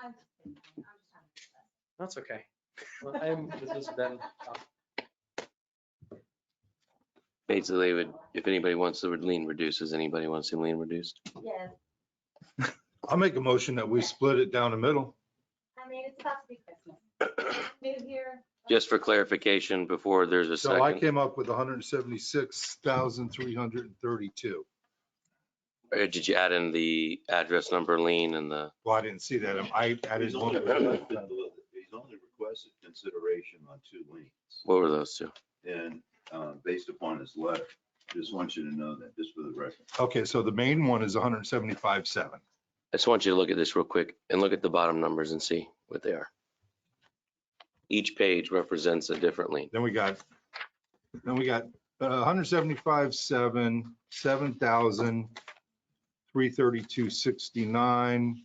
I'm just kidding. I'm just having a blast. That's okay. Well, I'm with this uh, Ben. Basically, it would, if anybody wants the word lean reduced, does anybody want to see lean reduced? Yes, I'll make a motion that we split it down the middle. I mean, it's about to be Christmas. New here. Just for clarification, before there's a So I second, came up with hundred and seventy-six thousand, three hundred and thirty-two. or did you add in the address number lean and the, Well, I didn't see that. I added He's only one. requested he's only requested consideration on two liens. what were those two? And uh, based upon his letter, just want you to know that, just for the record. Okay, so the main one is 175.7. hundred and seventy-five, seven. I just want you to look at this real quick and look at the bottom numbers and see what they are. Each page represents a different lien. Then we got, then we got uh, hundred and seventy-five, seven, seven thousand, three thirty-two, sixty-nine,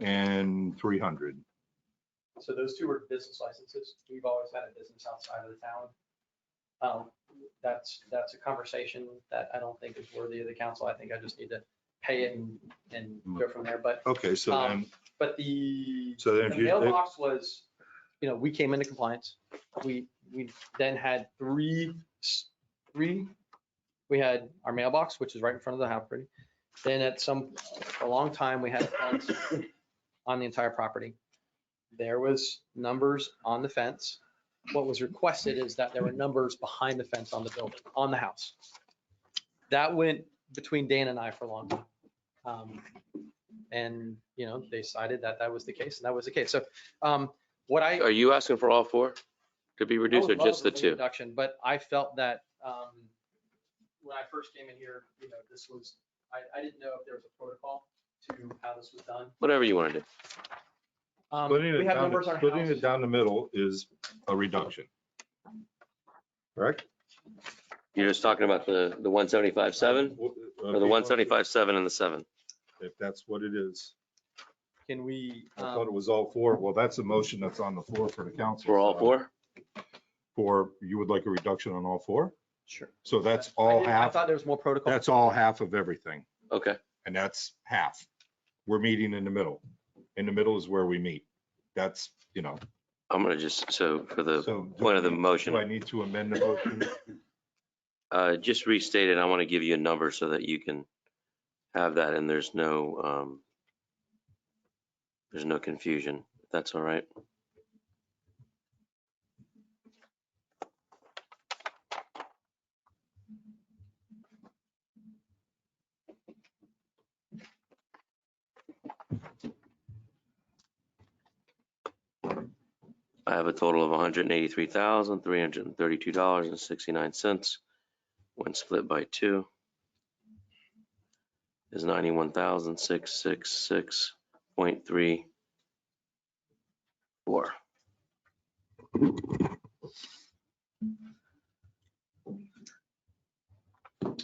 and three hundred. So those two are business licenses. We've always had a business outside of the town. Um, That's, that's a conversation that I don't think is worthy of the council. I think I just need to pay it and, and go from there. But, Okay, so then, Um, but the. so then if The you, if- mailbox was, you know, we came into compliance. We, we then had three, s- three, we had our mailbox, which is right in front of the house, pretty. Then at some, a long time, we had a fence on the entire property. There was numbers on the fence. What was requested is that there were numbers behind the fence on the building, on the house. That went between Dan and I for a long time. Um, and, you know, they decided that that was the case, and that was the case. So um, what I. Are you asking for all four to be I reduced or would love just the a two? Reduction, but I felt that um, when I first came in here, you know, this was, I, I didn't know if there was a protocol to how this was done. Whatever you want to do. Um, splitting it We have down, numbers on our splitting it house. down the middle is a reduction. Correct? You're just talking about the, the one seventy-five seven or the one seventy-five seven and the seven? uh, If that's what it is. Can we, I thought it um, was all four. Well, that's a motion that's on the floor for the council. For all four? For, you would like a reduction on all four? sure. So that's I all didn't- I half, thought there was more protocol. that's all half of everything, Okay. and that's half. We're meeting in the middle. In the middle is where we meet. That's, you know. I'm gonna just, so for the so do point of the I- Do I motion, need to amend the motion? uh, just restate it. I want to give you a number so that you can have that and there's no, um, there's no confusion. if That's all right. I have a total of hundred and eighty-three thousand, three hundred and thirty-two dollars and sixty-nine cents when split by two is ninety-one thousand, six, six, six point three four.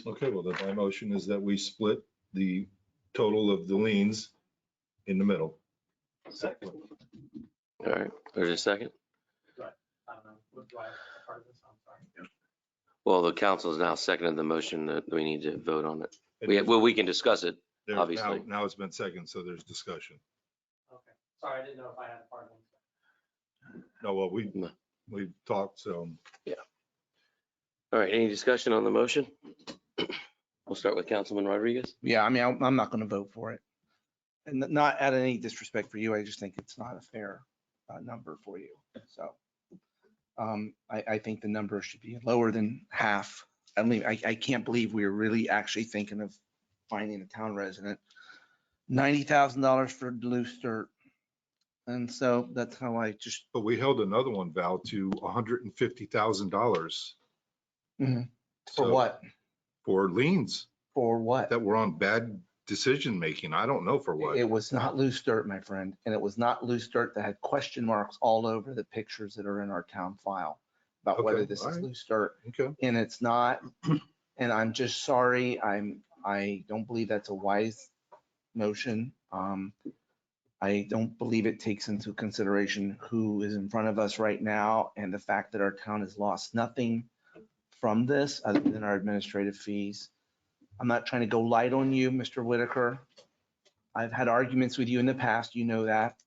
Okay, well, then my motion is that we split the total of the liens in the middle. All right, there's a second. I don't know. What do I have as part of this? I'm sorry. Well, the council has now seconded the motion that we need to vote on it. We, well, we can discuss it. There's now- obviously. Now it's been second, so there's discussion. Okay. Sorry, I didn't know if I had a part of it. No, well, we, No. we talked, so All right, any discussion on the motion? We'll start with Councilman Rodriguez. Yeah, I mean, I'm, I'm not going to vote for it. And not out of any disrespect for you, I just think it's not a fair uh, number for you, so. um, I, I think the number should be lower than half. I mean, I, I can't believe we are really actually thinking of finding a town resident. Ninety thousand dollars for loose dirt. And so that's how I just, But we held another one, Val, to hundred and fifty thousand dollars. Mhm. for what, For liens for what? that were on bad decision-making. I don't know for what. It was not loose dirt, my friend, and it was not loose dirt that had question marks all over the pictures that are in our town file about whether Okay, this is alright. loose dirt, Okay, and it's not. And I'm just sorry, I'm, I don't believe that's a wise motion. Um, I don't believe it takes into consideration who is in front of us right now and the fact that our town has lost nothing from this other than our administrative fees. I'm not trying to go light on you, Mr. Whitaker. I've had arguments with you in the past, you know that.